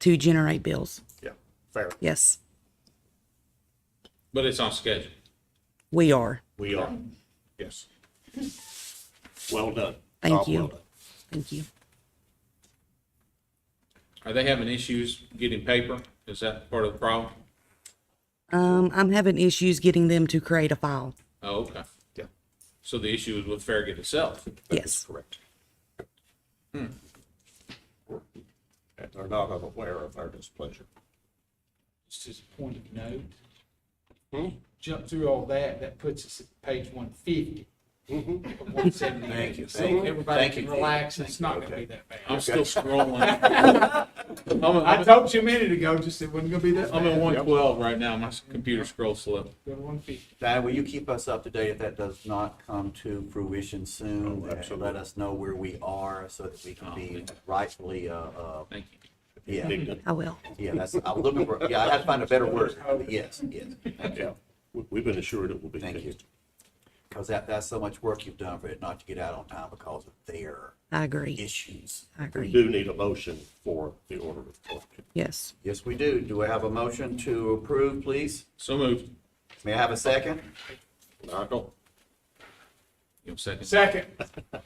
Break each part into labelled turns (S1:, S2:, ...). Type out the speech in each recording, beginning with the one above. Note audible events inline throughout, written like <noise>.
S1: to generate bills.
S2: Yeah, fair.
S1: Yes,
S3: But it's on schedule.
S1: we are.
S2: We are. Yes. Well done.
S1: Thank
S2: Bob,
S1: you.
S2: well done.
S1: Thank you.
S3: Are they having issues getting paper? Is that part of the problem?
S1: Um, I'm having issues getting them to create a file.
S3: Oh, okay.
S2: Yeah,
S3: So the issue is with Farragut itself.
S2: that is
S1: Yes,
S2: correct. Hmm. And they're not unaware of our displeasure.
S4: Just as a point of note,
S3: Hmm?
S4: jump through all that, that puts us at page one fifty. One
S3: Thank you,
S4: seventy-eight, so
S3: thank you,
S4: everybody
S3: thank
S4: can
S3: you.
S4: relax, it's not gonna be that bad.
S3: I'm still <laughs> scrolling. I'm,
S4: I
S3: I'm,
S4: told you a minute ago, just it wasn't gonna be that
S3: I'm at
S4: bad.
S3: one twelve right now. My computer scrolls slow.
S4: Go to one fifty.
S5: Diane, will you keep us up to date if that does not come to fruition soon?
S2: Oh,
S5: And
S2: absolutely.
S5: let us know where we are so that we can be rightfully, uh, uh,
S3: Thank you.
S5: yeah,
S1: I will.
S5: yeah, that's, I'm looking for, yeah, I had to find a better <laughs> word. Yes, yes,
S2: Yeah, We- we've been assured it will be
S5: thank you.
S2: fixed.
S5: Because that, that's so much work you've done for it not to get out on time because of their
S1: I agree.
S5: issues.
S1: I
S2: We
S1: agree.
S2: do need a motion for the order of collection.
S1: Yes.
S5: Yes, we do. Do I have a motion to approve, please?
S3: So moved.
S5: May I have a second?
S2: Knock
S3: You have a second?
S4: Second.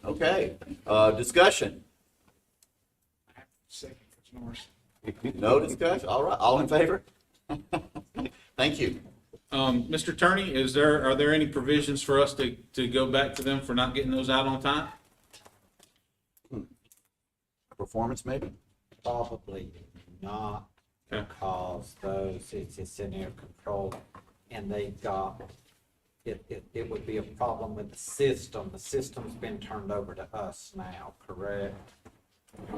S5: Okay, uh, discussion.
S4: Second for Norris.
S5: No discussion? All right, all in favor? <laughs> Thank you.
S3: Um, Mr. Attorney, is there, are there any provisions for us to, to go back to them for not getting those out on time?
S5: Performance maybe?
S6: Probably not,
S3: Okay.
S6: because those, it's, it's in their control, and they got, it, it, it would be a problem with the system, the system's been turned over to us now, correct?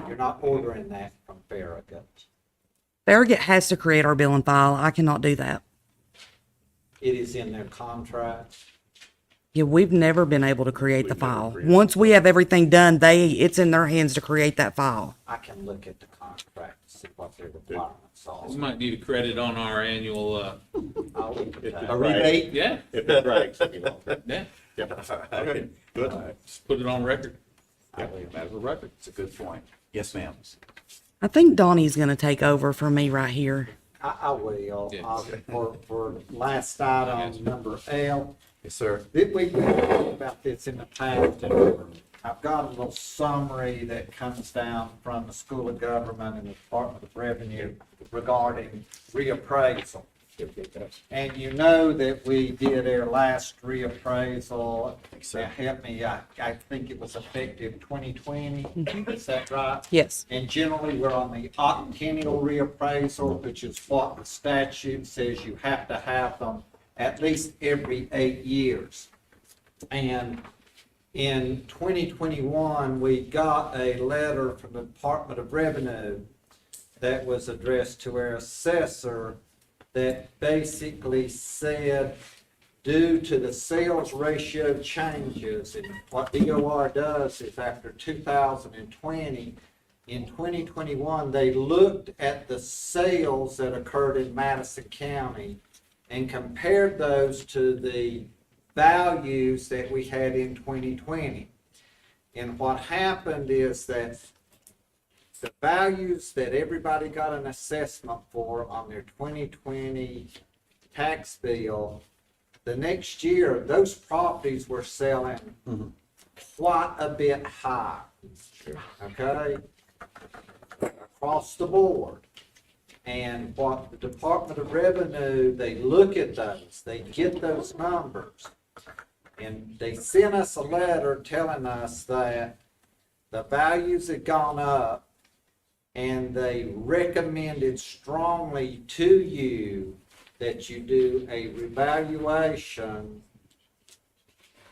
S6: You're not ordering that from Farragut.
S1: Farragut has to create our bill and file. I cannot do that.
S6: It is in their contract,
S1: Yeah, we've never been able to create the file.
S2: created
S1: Once we have everything done, they, it's in their hands to create that file.
S6: I can look at the contract, to see what their requirements are.
S3: We might need a credit on our annual, uh,
S6: I'll look at that.
S5: A rebate?
S3: yeah,
S2: If it drags any longer.
S3: yeah,
S5: <laughs>
S2: Okay, good.
S3: just put it on record.
S6: I will.
S5: Matter of record, it's a good point. Yes, ma'am.
S1: I think Donnie's gonna take over for me right here.
S6: I, I will,
S3: Yeah.
S6: Uh, for, for last item, number L,
S5: Yes, sir.
S6: Did we we talked about this in the past? and I've got a little summary that comes down from the School of Government and the Department of Revenue regarding reappraisal. And you know that we did our last reappraisal. Now, help me, I, I think it was effective twenty twenty, is that right?
S1: Yes.
S6: And generally, we're on the octennial reappraisal, which is what the statute says you have to have them at least every eight years. And in 2021, we got a letter from the Department of Revenue that was addressed to our assessor that basically said, due to the sales ratio changes, and what DOR does is after 2020, in 2021, they looked at the sales that occurred in Madison County and compared those to the values that we had in 2020. And what happened is that the values that everybody got an assessment for on their 2020 tax bill, the next year, those properties were selling quite a bit high. Okay? Across the board. And what the Department of Revenue, they look at those, they get those numbers. And they sent us a letter telling us that the values had gone up and they recommended strongly to you that you do a revaluation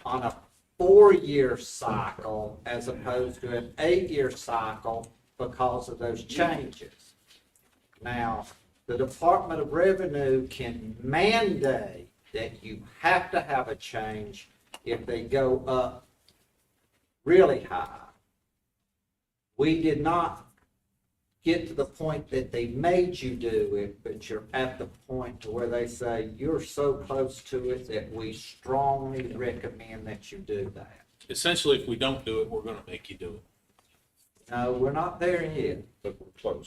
S6: on a four-year cycle as opposed to an eight-year cycle because of those changes. Now, the Department of Revenue can mandate that you have to have a change if they go up really high. We did not get to the point that they made you do it, but you're at the point to where they say, you're so close to it that we strongly recommend that you do that.
S3: Essentially, if we don't do it, we're gonna make you do it.
S6: No, we're not there yet.
S2: But we're close.